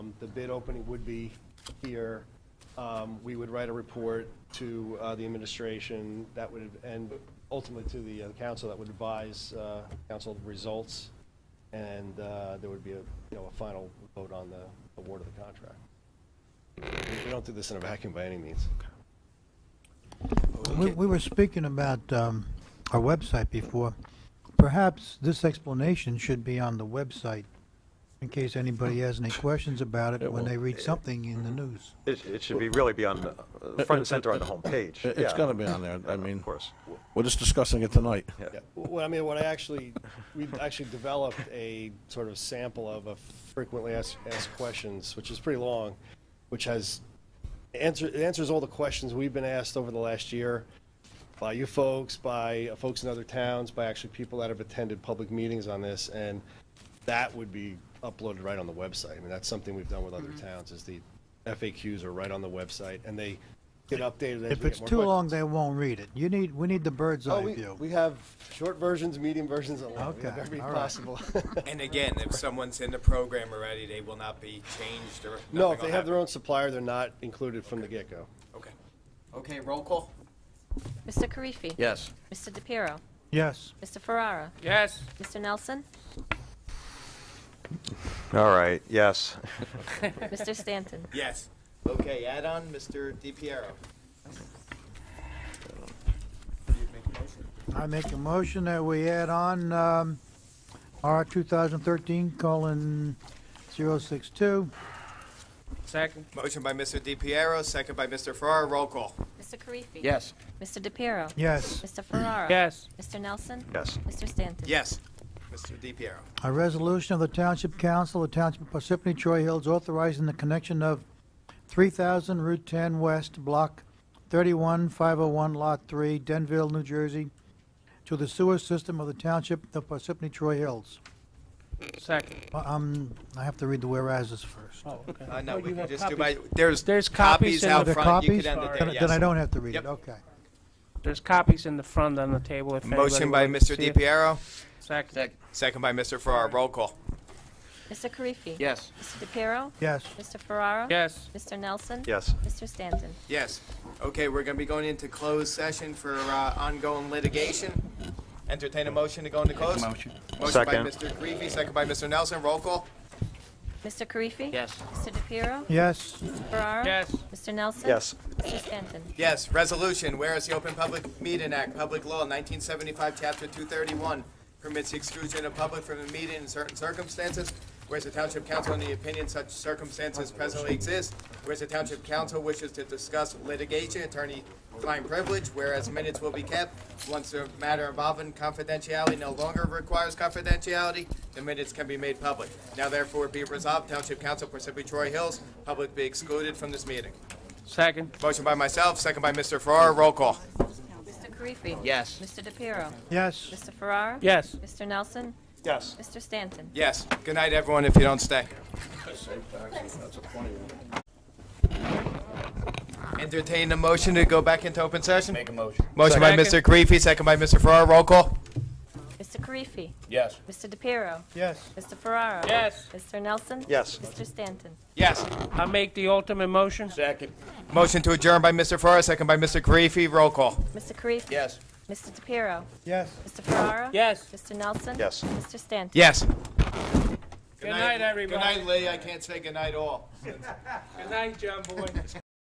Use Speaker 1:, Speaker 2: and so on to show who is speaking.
Speaker 1: Um, the bid opening would be here. Um, We would write a report to uh, the administration that would, and ultimately to the uh, council that would advise uh, council the results. And uh, there would be a, you know, a final vote on the award of the contract. We- We don't do this in a vacuum by any means.
Speaker 2: We, we were speaking about um, our website before. Perhaps this explanation should be on the website in case anybody has any questions about it when they read something in the news.
Speaker 3: It, it should be, really be on, the, uh, front and center on the homepage.
Speaker 4: It- It's
Speaker 3: yeah.
Speaker 4: gonna be on there, I mean.
Speaker 3: Of course.
Speaker 4: We're just discussing it tonight.
Speaker 1: Yeah, Well, I mean, what I actually, we've actually developed a sort of sample of a frequently asked, asked questions, which is pretty long, which has, answer, it answers all the questions we've been asked over the last year by you folks, by uh, folks in other towns, by actually people that have attended public meetings on this, and that would be uploaded right on the website. I mean, that's something we've done with other towns, is the FAQs are right on the website, and they get updated as we
Speaker 2: If
Speaker 1: get
Speaker 2: it's
Speaker 1: more
Speaker 2: too
Speaker 1: questions.
Speaker 2: long, they won't read it. You need, we need the bird's
Speaker 1: Oh,
Speaker 2: eye
Speaker 1: we,
Speaker 2: view.
Speaker 1: we have short versions, medium versions, and long. We have
Speaker 2: Okay,
Speaker 1: every
Speaker 2: all right.
Speaker 1: possible.
Speaker 5: And again, if someone's in the program already, they will not be changed or.
Speaker 1: no,
Speaker 5: nothing
Speaker 1: if
Speaker 5: will
Speaker 1: they have their
Speaker 5: happen.
Speaker 1: own supplier, they're not included from the get-go.
Speaker 5: Okay. Okay, roll call?
Speaker 6: Mr. Karifi.
Speaker 4: Yes.
Speaker 6: Mr. DePiero.
Speaker 2: Yes.
Speaker 6: Mr. Ferrara.
Speaker 7: Yes.
Speaker 6: Mr. Nelson.
Speaker 3: All right, yes.
Speaker 6: Mr. Stanton.
Speaker 5: Yes.
Speaker 8: Okay, add-on, Mr. DiPiero.
Speaker 2: I make a motion that we add on um, R 2013 colon 062.
Speaker 7: Second.
Speaker 5: Motion by Mr. DiPiero, second by Mr. Farrar, roll call?
Speaker 6: Mr. Karifi.
Speaker 7: Yes.
Speaker 6: Mr. DePiero.
Speaker 2: Yes.
Speaker 6: Mr. Ferrara.
Speaker 7: Yes.
Speaker 6: Mr. Nelson.
Speaker 3: Yes.
Speaker 6: Mr. Stanton.
Speaker 5: Yes. Mr. DiPiero.
Speaker 2: A resolution of the Township Council of Township of Parsippany Troy Hills authorizing the connection of 3,000 Route 10 West, Block 31501, Lot 3, Denville, New Jersey, to the sewer system of the Township of Parsippany Troy Hills.
Speaker 7: Second.
Speaker 2: Uh, Um, I have to read the whereases first.
Speaker 5: Uh, no,
Speaker 7: Oh,
Speaker 5: we
Speaker 7: you
Speaker 5: can
Speaker 7: have
Speaker 5: just do by,
Speaker 7: copies.
Speaker 5: there's.
Speaker 7: There's copies in
Speaker 5: out
Speaker 2: Are there
Speaker 7: the-
Speaker 5: front, you
Speaker 2: copies?
Speaker 5: could end it
Speaker 7: Sorry.
Speaker 5: there,
Speaker 2: Then
Speaker 5: yes.
Speaker 2: then I don't have to read
Speaker 5: Yep.
Speaker 2: it, okay.
Speaker 7: There's copies in the front on the table if anybody
Speaker 5: Motion by
Speaker 7: wants to
Speaker 5: Mr.
Speaker 7: see it.
Speaker 5: DiPiero,
Speaker 7: Second.
Speaker 5: second by Mr. Farrar, roll call?
Speaker 6: Mr. Karifi.
Speaker 7: Yes.
Speaker 6: Mr. DePiero.
Speaker 2: Yes.
Speaker 6: Mr. Ferrara.
Speaker 7: Yes.
Speaker 6: Mr. Nelson.
Speaker 3: Yes.
Speaker 6: Mr. Stanton.
Speaker 5: Yes. Okay, we're gonna be going into closed session for, uh, ongoing litigation. Entertain a motion to go into closed? Motion. Motion by
Speaker 3: Second.
Speaker 5: Mr. Greavy, second by Mr. Nelson, roll call?
Speaker 6: Mr. Karifi.
Speaker 7: Yes.
Speaker 6: Mr. DePiero.
Speaker 2: Yes,
Speaker 6: Mr. Ferrara.
Speaker 7: Yes.
Speaker 6: Mr. Nelson.
Speaker 3: Yes.
Speaker 6: Mr. Stanton.
Speaker 5: Yes, resolution, whereas the Open Public Meeting Act, Public Law, 1975, Chapter 231, permits the exclusion of public from a meeting in certain circumstances, whereas the Township Council, in the opinion such circumstances presently exist, whereas the Township Council wishes to discuss litigation, attorney-client privilege, whereas minutes will be kept, once the matter involving confidentiality no longer requires confidentiality, the minutes can be made public. Now therefore be it resolved, Township Council, Parsippany Troy Hills, public be excluded from this meeting.
Speaker 7: Second.
Speaker 5: Motion by myself, second by Mr. Farrar, roll call.
Speaker 6: Mr. Karifi.
Speaker 7: Yes.
Speaker 6: Mr. DePiero.
Speaker 2: yes.
Speaker 6: Mr. Ferrara.
Speaker 7: Yes.
Speaker 6: Mr. Nelson.
Speaker 3: Yes.
Speaker 6: Mr. Stanton.
Speaker 5: Yes, good night, everyone, if you don't stay. Entertain the motion to go back into open session?
Speaker 8: Make a motion.
Speaker 5: Motion by Mr.
Speaker 7: Second.
Speaker 5: Karifi, second by Mr. Farrar, roll call?
Speaker 6: Mr. Karifi.
Speaker 8: Yes.
Speaker 6: Mr. DePiero.
Speaker 2: Yes.
Speaker 6: Mr. Ferrara.
Speaker 7: Yes.
Speaker 6: Mr. Nelson.
Speaker 3: Yes.
Speaker 6: Mr. Stanton.
Speaker 5: Yes.
Speaker 7: I make the ultimate motion.
Speaker 8: Second.
Speaker 5: Motion to adjourn by Mr. Farrar, second by Mr. Karifi, roll call?
Speaker 6: Mr. Karifi.
Speaker 8: Yes.
Speaker 6: Mr. DePiero.
Speaker 2: Yes.
Speaker 6: Mr. Ferrara.
Speaker 7: Yes.
Speaker 6: Mr. Nelson.
Speaker 3: Yes.
Speaker 6: Mr. Stanton.
Speaker 5: Yes.
Speaker 7: Good night, everybody.
Speaker 5: Good night, Lee, I can't say good night all.
Speaker 7: Good night, John Boy.